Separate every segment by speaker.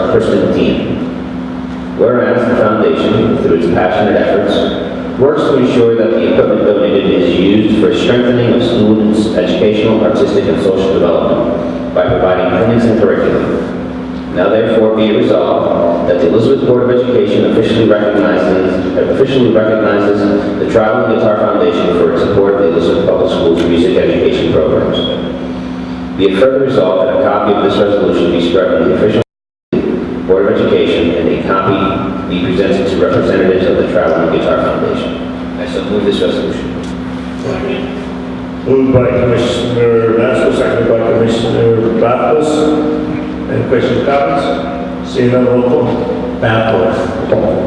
Speaker 1: uh, Christian team. Whereas the foundation, through its passionate efforts, works to ensure that the equipment donated is used for strengthening of students' educational, artistic, and social development by providing clinics and curriculum. Now therefore be it resolved that the Elizabeth Board of Education officially recognizes, officially recognizes the Traveling Guitar Foundation for its support of the Elizabeth Public Schools music education programs. Be it further resolved that a copy of this resolution be struck in the official Board of Education and a copy be presented to representatives of the Traveling Guitar Foundation. I so move this resolution.
Speaker 2: Moved by Commissioner Mansell, seconded by Commissioner Barfus. Any questions, comments? Seeing none, roll call.
Speaker 3: Bathos.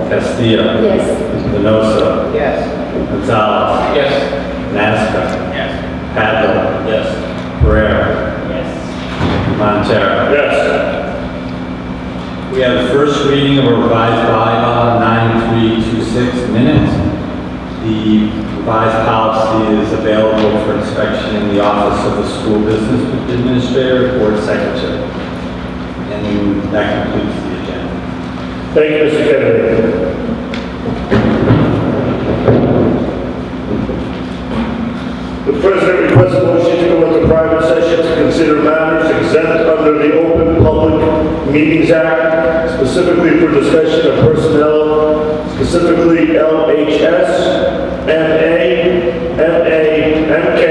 Speaker 3: Castillo.
Speaker 4: Yes.
Speaker 3: Lenoso.
Speaker 1: Yes.
Speaker 3: Gonzalez.
Speaker 1: Yes.
Speaker 3: Nasca.
Speaker 1: Yes.
Speaker 3: Padilla. Yes. Pereira.
Speaker 1: Yes.
Speaker 3: Montero.
Speaker 2: Yes.
Speaker 3: We have the first reading of a revised bylaw 9326 minutes. The revised policy is available for inspection in the office of the school business administrator or secretary. And that completes the agenda.
Speaker 2: Thank you, Mr. Kennedy. The president requests a motion to go into private session to consider matters exempt under the Open Public Meetings Act, specifically for discussion of personnel, specifically LHS, MA, MA, MK,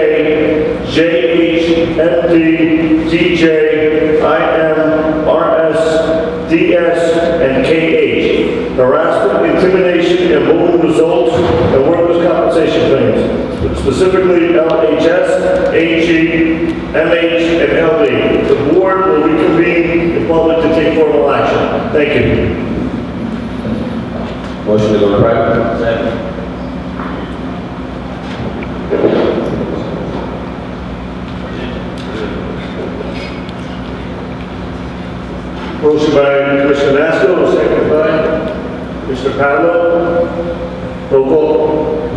Speaker 2: JH, MD, DJ, IM, RS, DS, and KH. Harassment, intimidation, and bullying results in workers' compensation claims, specifically LHS, AG, MH, and LD. The board will reconvene in public to take formal action. Thank you.
Speaker 1: Motion to go to private?
Speaker 2: Motion by Commissioner Mansell, second by Commissioner Padilla. Roll call.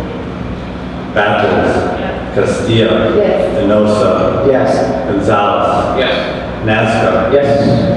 Speaker 3: Bathos. Castillo.
Speaker 4: Yes.
Speaker 3: Lenoso.
Speaker 1: Yes.
Speaker 3: Gonzalez.
Speaker 1: Yes.
Speaker 3: Nasca.
Speaker 1: Yes.